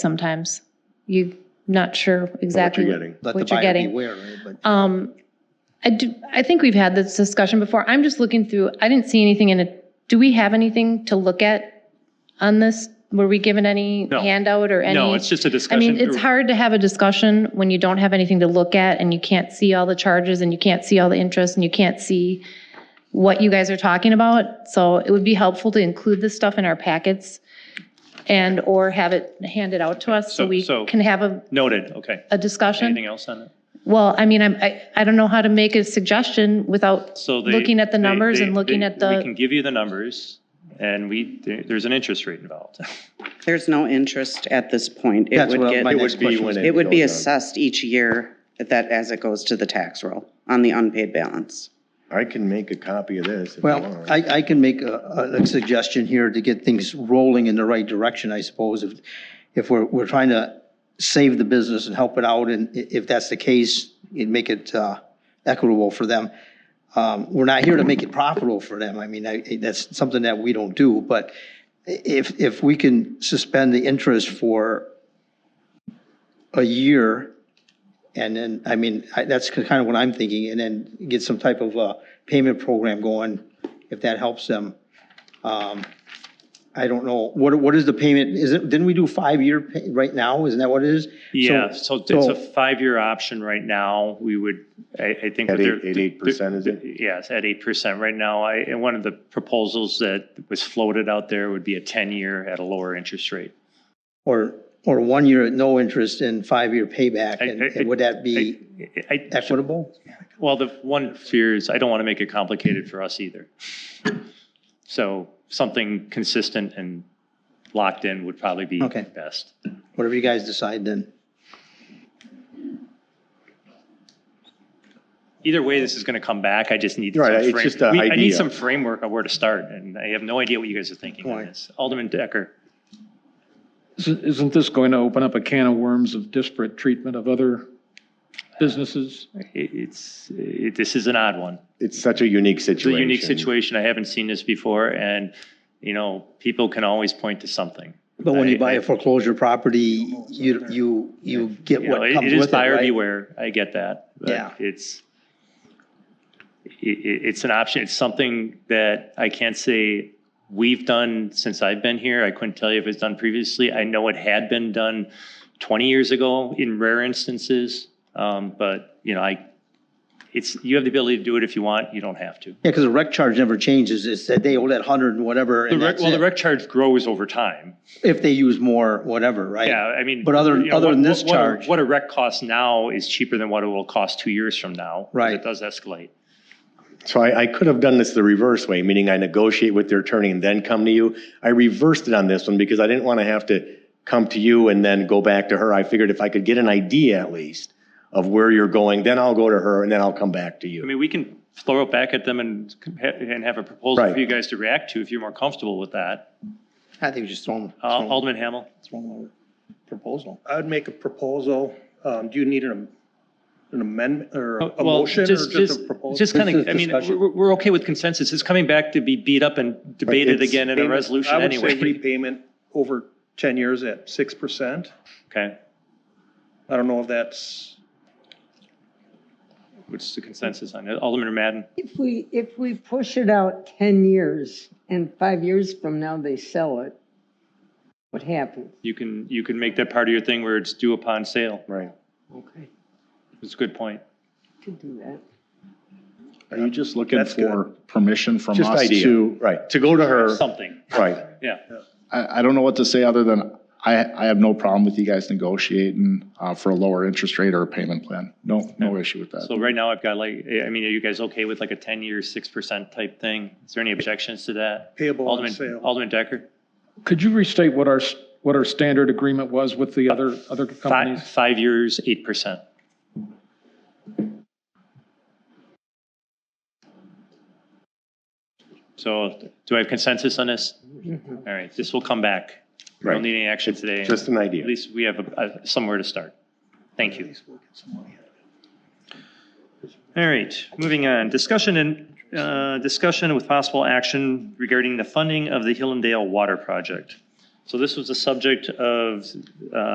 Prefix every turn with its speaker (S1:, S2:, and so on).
S1: sometimes. You're not sure exactly
S2: getting.
S3: Let the
S1: what you're
S3: buyer
S1: getting.
S3: beware, right? But
S1: Um, I do, I think we've had this discussion before. I'm just looking through, I didn't see anything in it. Do we have anything to look at on this? Were we given any
S4: No.
S1: handout or any?
S4: No, it's just a
S1: I
S4: discussion.
S1: mean, it's hard to have a discussion when you don't have anything to look at and you can't see all the charges and you can't see all the interest and you can't see what you guys are talking about. So it would be helpful to include this stuff in our packets and or have it handed out to us so
S4: So-
S1: we
S4: so-
S1: can have a,
S4: Noted, okay.
S1: a discussion.
S4: Anything else on it?
S1: Well, I mean, I'm, I, I don't know how to make a suggestion without,
S4: So they.
S1: Looking at the
S4: they-
S1: numbers and
S4: they-
S1: looking
S4: they-
S1: at the-
S4: We can give you the numbers and we, there- there's an interest rate involved.
S5: There's no interest at this point. It
S3: That's
S5: would
S3: what my
S5: get,
S3: next
S2: would be
S3: question
S2: when
S3: was.
S2: it-
S5: it would be
S2: goes on.
S5: assessed each year at that, as it goes to the tax roll on the unpaid balance.
S2: I can make a copy of this. if you
S3: Well,
S2: want.
S3: I, I can make a, a suggestion here to get things rolling in the right direction, I suppose. If, if we're, we're trying to save the business and help it out, and i- if that's the case, it make it uh, equitable for them. Um, We're not here to make it profitable for them. I mean, I- that's something that we don't do. But i- if, if we can suspend the interest for a year, and then, I mean, I- that's kind of what I'm thinking, and then get some type of uh, payment program going, if that helps them. Um, I don't know, what, what is the payment, is it, didn't we do five-year pay- right now, isn't that what it is?
S4: Yeah, so it's
S3: so-
S4: a five-year option right now. We would, I, I think.
S2: At
S4: what they're-
S2: eight- at 8%, is it?
S4: Yes, at eight percent right now. I, and one of the proposals that was floated out there would be a ten-year at a lower interest rate.
S3: Or, or one year at no interest and five-year payback,
S4: I-
S3: and
S4: I-
S3: and would that be
S4: I, I-
S3: equitable?
S4: well, the one fear is I don't want to make it complicated for us either. So something consistent and locked in would probably be
S3: Okay.
S4: best.
S3: Whatever you guys decide then.
S4: Either way, this is going to come back. I just need.
S2: Right,
S4: some
S2: it's
S4: frame-
S2: just a
S4: we- I need
S2: idea.
S4: some framework of where to start, and I have no idea what you guys are thinking on
S3: Right.
S4: this. Alderman Decker.
S6: Isn't isn't this going to open up a can of worms of disparate treatment of other businesses?
S4: It- It's, it- this is an odd one.
S2: It's such a unique
S4: It's
S2: situation.
S4: a unique situation. I haven't seen this before, and, you know, people can always point to something.
S3: But when you
S4: I-
S3: buy
S4: I-
S3: a foreclosure property, you, you, you get
S4: You know,
S3: what
S4: it-
S3: comes
S4: it is
S3: with it,
S4: buyer
S3: right?
S4: beware. I get that. but
S3: Yeah.
S4: It's, it, it- it's an option. It's something that I can't say we've done since I've been here. I couldn't tell you if it's done previously. I know it had been done 20 years ago in rare instances, um, but, you know, I, it's, you have the ability to do it if you want. You don't have to.
S3: Yeah, because the rec charge never changes. It's that they owe that hundred and whatever,
S4: The
S3: and
S4: rec,
S3: that's
S4: well, the
S3: it.
S4: rec charge grows over time.
S3: If they use more, whatever, right?
S4: Yeah, I mean.
S3: But other-
S4: you know,
S3: other than
S4: what-
S3: this
S4: what a-
S3: charge-
S4: What a rec costs now is cheaper than what it will cost two years from now. 'cause
S3: Right.
S4: It does escalate.
S2: So I, I could have done this the reverse way, meaning I negotiate with their attorney and then come to you. I reversed it on this one because I didn't want to have to come to you and then go back to her. I figured if I could get an idea at least of where you're going, then I'll go to her and then I'll come back to
S4: I
S2: you.
S4: mean, we can throw it back at them and, and have a proposal
S2: Right.
S4: for you guys to react to if you're more comfortable with that.
S3: I think just throw them,
S4: Uh,
S3: throw
S4: Alderman Hamel?
S3: them a proposal.
S7: I would make a proposal. Um, Do you need an an amendment or a
S4: Well,
S7: motion or just a
S4: Just
S7: proposal?
S4: kind
S3: This
S4: of,
S3: is
S4: I mean,
S3: discussion.
S4: we're, we're okay with consensus. It's coming back to be beat up and debated
S2: it's
S4: again in a
S7: Payment-
S4: resolution
S7: I would say
S4: anyway.
S7: repayment over 10 years at 6%.
S4: Okay,
S7: I don't know if that's,
S4: what's the consensus on it? Alderman Madden?
S8: If we, if we push it out 10 years and five years from now they sell it, what happens?
S4: You can, you can make that part of your thing where it's due upon sale.
S2: Right.
S8: Okay,
S4: It's a good point.
S8: could do that.
S6: Are you just looking
S7: That's good.
S6: for permission from
S2: Just
S6: us
S2: idea,
S6: to?
S2: right, to go to her,
S4: Something,
S2: right.
S4: yeah.
S6: I, I don't know what to say other than I, I have no problem with you guys negotiating uh, for a lower interest rate or a payment plan. No, no issue with that.
S4: So right now I've got like, I mean, are you guys okay with like a 10-year, 6% type thing? Is there any objections to that?
S7: Payable on
S4: Alderman,
S7: sale.
S4: Alderman Decker?
S6: Could you restate what our, s- what our standard agreement was with the other, other
S4: Five,
S6: companies?
S4: five years, 8%. So do I have consensus on this? All right, this will come back. We
S2: Mm-hmm. Right.
S4: don't need any action today.
S2: Just an idea.
S4: At least we have a- a- somewhere to start. Thank you. All right, moving on. Discussion and, uh, discussion with possible action regarding the funding of the Hillendale Water Project. So this was the subject of uh,